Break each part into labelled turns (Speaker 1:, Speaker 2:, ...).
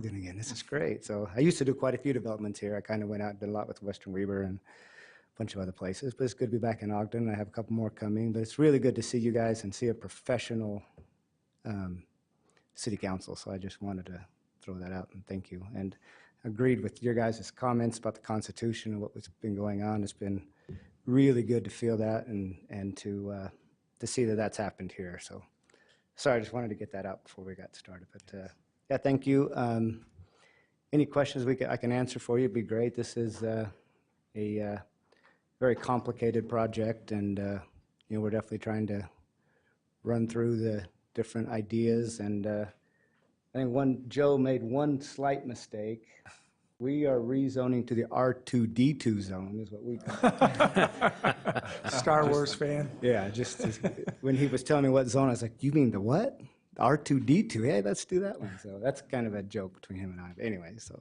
Speaker 1: doing again. This is
Speaker 2: That's-
Speaker 1: great. So I used to do quite a few developments here. I kind of went out and did a lot with Western Weaver and a bunch of other places. But it's good to be back in Ogden. I have a couple more coming. But it's really good to see you guys and see a professional um, city council. So I just wanted to throw that out and thank you. And agreed with your guys' comments about the Constitution and what's been going on. It's been really good to feel that and and to uh, to see that that's happened here. So sorry, I just wanted to get that out before we got started. But uh, yeah, thank you. Um, any questions we can, I can answer for you would be great. This is uh, a uh, very complicated project, and uh, you know we're definitely trying to run through the different ideas. And uh, I think one Joe made one slight mistake. We are rezoning to the R2D2 zone, is what we call it.
Speaker 2: Star Wars fan.
Speaker 1: Yeah, just just- when he was telling me what zone, I was like, "You mean the what? R two D two? Hey, let's do that one." So that's kind of a joke between him and I. But anyway, so.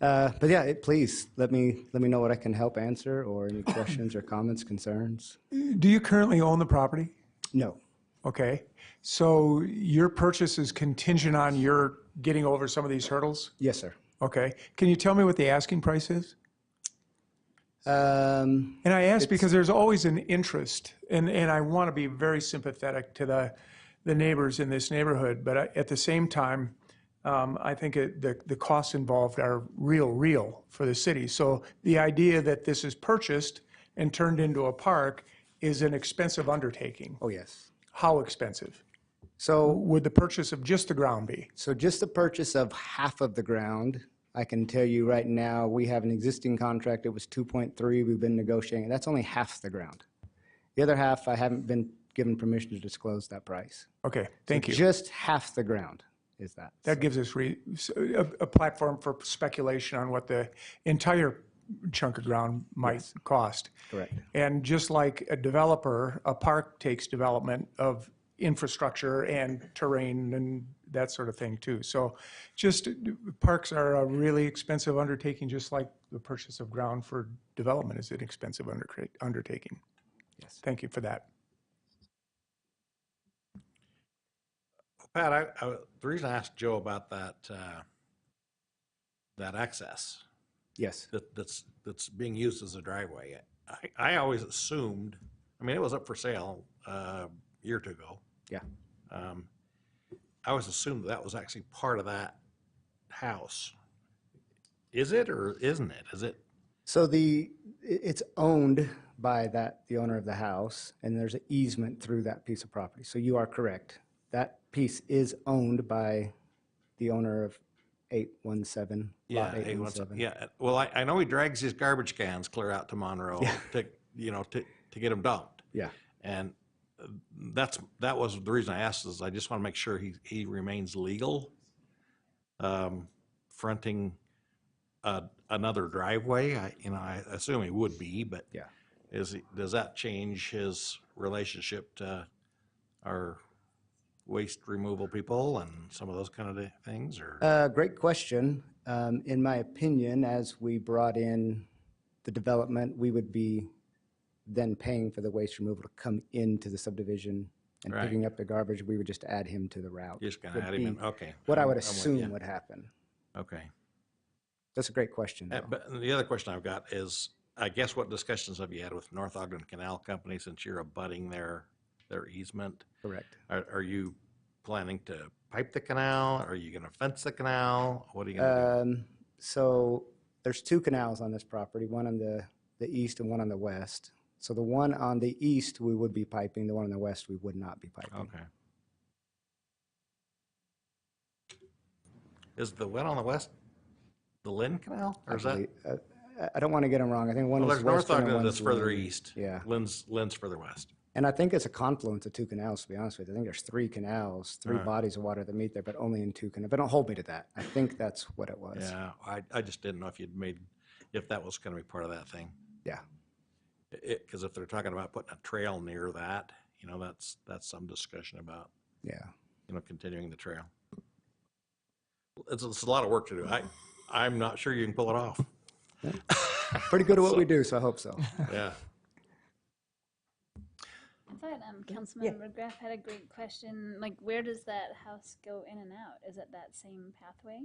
Speaker 1: Uh, but yeah, it, please let me let me know what I can help answer or any questions or comments, concerns.
Speaker 2: Do you currently own the property?
Speaker 1: No,
Speaker 2: Okay, so your purchase is contingent on your getting over some of these hurdles?
Speaker 1: yes, sir.
Speaker 2: Okay, can you tell me what the asking price is?
Speaker 1: Um,
Speaker 2: And I ask because there's always an interest, and, and I want to be very sympathetic to the, the neighbors in this neighborhood, but I- at the same time, um, I think it, the, the costs involved are real, real for the city. So the idea that this is purchased and turned into a park is an expensive undertaking.
Speaker 1: oh yes.
Speaker 2: How expensive
Speaker 1: So
Speaker 2: would the purchase of just the ground be?
Speaker 1: so just the purchase of half of the ground. I can tell you right now, we have an existing contract. It was 2.3. We've been negotiating. That's only half the ground. The other half, I haven't been given permission to disclose that price.
Speaker 2: Okay, thank you.
Speaker 1: Just half the ground is that.
Speaker 2: That gives us re, s- a, a platform for speculation on what the entire chunk of ground might cost.
Speaker 1: Correct.
Speaker 2: And just like a developer, a park takes development of infrastructure and terrain and that sort of thing too. So just, uh, parks are a really expensive undertaking, just like the purchase of ground for development is an expensive undercra- undertaking.
Speaker 1: Yes.
Speaker 2: Thank you for that.
Speaker 3: Pat, I, I, the reason I asked Joe about that, uh, that access
Speaker 1: Yes.
Speaker 3: that, that's, that's being used as a driveway, I, I always assumed, I mean, it was up for sale, uh, a year or two ago.
Speaker 1: Yeah.
Speaker 3: Um, I always assumed that was actually part of that house. Is it or isn't it? Is it?
Speaker 1: So the, i- it's owned by that, the owner of the house, and there's an easement through that piece of property. So you are correct. That piece is owned by the owner of 817, lot
Speaker 3: hey, what's up?
Speaker 1: 817.
Speaker 3: Yeah, well, I, I know he drags his garbage cans clear out to Monroe to, you know, to, to get them dumped.
Speaker 1: Yeah.
Speaker 3: And uh, that's, that was the reason I asked is I just want to make sure he, he remains legal. um, Fronting uh, another driveway, I, you know, I assume he would be, but.
Speaker 1: Yeah.
Speaker 3: Is, he- does that change his relationship to our waste removal people and some of those kind of di- things or?
Speaker 1: Uh, Great question. Um, In my opinion, as we brought in the development, we would be then paying for the waste removal to come into the subdivision and
Speaker 3: Right.
Speaker 1: picking up the garbage. We would just add him to the route.
Speaker 3: Just gonna
Speaker 1: would
Speaker 3: add him in,
Speaker 1: be
Speaker 3: okay.
Speaker 1: What I
Speaker 3: I'm-
Speaker 1: would
Speaker 3: I'm with ya.
Speaker 1: assume would happen.
Speaker 3: Okay.
Speaker 1: That's a great question,
Speaker 3: Uh,
Speaker 1: though.
Speaker 3: But the other question I've got is, I guess what discussions have you had with North Ogden Canal Company since you're abutting their, their easement?
Speaker 1: Correct.
Speaker 3: Are, are you planning to pipe the canal? Are you gonna fence the canal? What are you gonna
Speaker 1: Um, So there's two canals on this property, one on the, the east and one on the west. So the one on the east, we would be piping, the one on the west, we would not be
Speaker 3: do?
Speaker 1: piping.
Speaker 3: Okay. Is the one on the west, the Lynn Canal?
Speaker 1: I
Speaker 3: Or is that,
Speaker 1: believe- uh, I- I don't want to get them wrong. I think one
Speaker 3: well,
Speaker 1: is
Speaker 3: there's North
Speaker 1: western and
Speaker 3: Ogden
Speaker 1: one's
Speaker 3: that's further
Speaker 1: northern.
Speaker 3: east.
Speaker 1: Yeah.
Speaker 3: Lynn's, Lynn's further west.
Speaker 1: And I think it's a confluence of two canals, to be honest with you. I think there's three canals, three
Speaker 3: Right.
Speaker 1: bodies of water that meet there, but only in two canals. But don't hold me to that. I think that's what it was.
Speaker 3: Yeah, I, I just didn't know if you'd made, if that was gonna be part of that thing.
Speaker 1: Yeah.
Speaker 3: It, because if they're talking about putting a trail near that, you know, that's, that's some discussion about,
Speaker 1: Yeah.
Speaker 3: you know, continuing the trail. It's, it's a lot of work to do. I, I'm not sure you can pull it off.
Speaker 1: Pretty good at what we do, so I hope so.
Speaker 3: Yeah.
Speaker 4: I thought um, Councilmember Graff had a great question. Like, where does that house go in and out? Is it that same pathway?